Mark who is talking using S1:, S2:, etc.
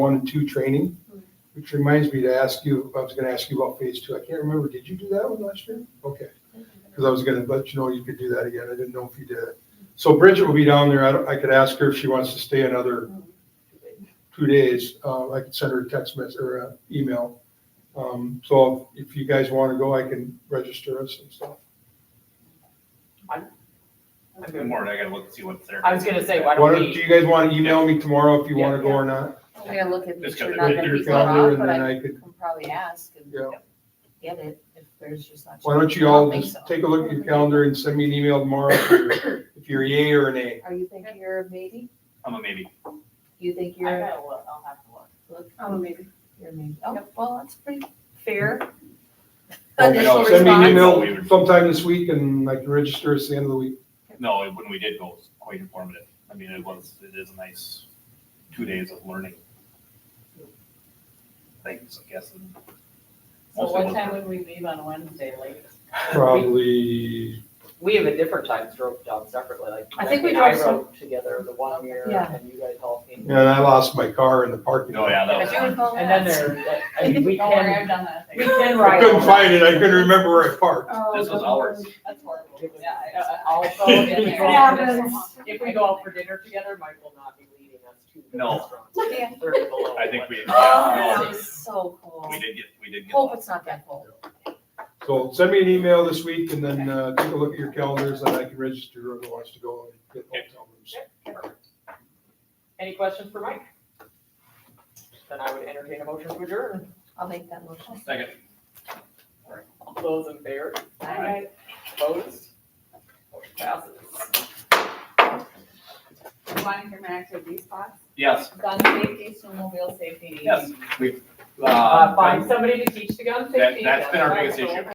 S1: one and two training, which reminds me to ask you, I was gonna ask you about phase two. I can't remember, did you do that one last year? Okay. Because I was gonna let you know you could do that again. I didn't know if you did it. So Bridget will be down there. I don't- I could ask her if she wants to stay another two days. Uh, I could send her a text message or an email. Um, so if you guys wanna go, I can register us and stuff.
S2: Good morning, I gotta look and see what's there.
S3: I was gonna say, why
S1: Why
S3: don't
S1: don't, do
S3: we,
S1: you guys wanna email me tomorrow if you wanna go or not?
S4: I gotta look at these,
S2: Just
S4: you're
S2: gotta
S4: not
S2: pick
S4: gonna
S2: your
S4: be far
S1: Calendar
S4: off,
S1: and
S4: but
S1: then
S4: I
S1: I could,
S4: can probably ask and
S1: yeah.
S4: get it if there's just not.
S1: Why don't you
S4: I
S1: all
S4: think
S1: just
S4: so.
S1: take a look at your calendar and send me an email tomorrow if you're- if you're a yay or an A.
S4: Are you thinking you're a maybe?
S2: I'm a maybe.
S4: You think
S3: I
S4: you're,
S3: gotta look, I'll have to look.
S4: look,
S5: Oh, maybe.
S4: you're a maybe? Oh, well, that's pretty fair.
S2: Initial
S1: Send me an
S2: response.
S1: email sometime this week and I can register us the end of the week.
S2: No, when we did go, it was quite informative. I mean, it was, it is a nice two days of learning. Things, I guess. and
S3: So
S2: mostly
S3: what
S2: was-
S3: time would we leave on Wednesday, like?
S1: Probably,
S3: We have a different time drove down separately, like.
S4: I think we
S3: Becky and
S4: drove
S3: I rode together the one year
S4: Yeah.
S3: and you guys all came.
S1: and I lost my car in the parking
S2: Oh,
S1: lot.
S2: yeah, that
S4: I
S2: was
S4: do
S2: fun.
S4: recall
S3: And then
S4: that.
S3: there, like, I mean, we
S5: Don't worry,
S3: can,
S5: I've done that.
S3: we can
S1: I
S3: ride.
S1: couldn't find it. I couldn't remember where I parked.
S4: Oh,
S2: This was ours.
S5: That's horrible.
S3: Yeah,
S5: Yeah.
S3: I- I- also,
S2: It
S3: if we go out for dinner-
S5: happens.
S3: if we go out for dinner together, Mike will not be leading us to the
S2: No.
S3: restaurant.
S4: Yeah.
S3: Thirty below.
S2: I think we,
S4: Oh,
S2: yeah,
S4: that
S2: no,
S4: was so cool.
S2: we did get, we did get.
S4: Hope it's not that cold.
S1: So send me an email this week and then, uh, take a look at your calendars and I can register whoever wants to go and get hotel rooms.
S3: Any questions for Mike? Then I would entertain a motion to adjourn.
S4: I'll make that motion.
S2: Second.
S3: All those in favor,
S4: Aye.
S3: opposed? Motion passes.
S5: You want to hear my active these spots?
S2: Yes,
S5: Gun safety, snowmobile safety.
S2: yes, we,
S3: Uh,
S2: uh,
S3: find somebody to teach the gun
S2: That-
S3: safety.
S2: that's been our biggest
S3: That's all.
S2: issue.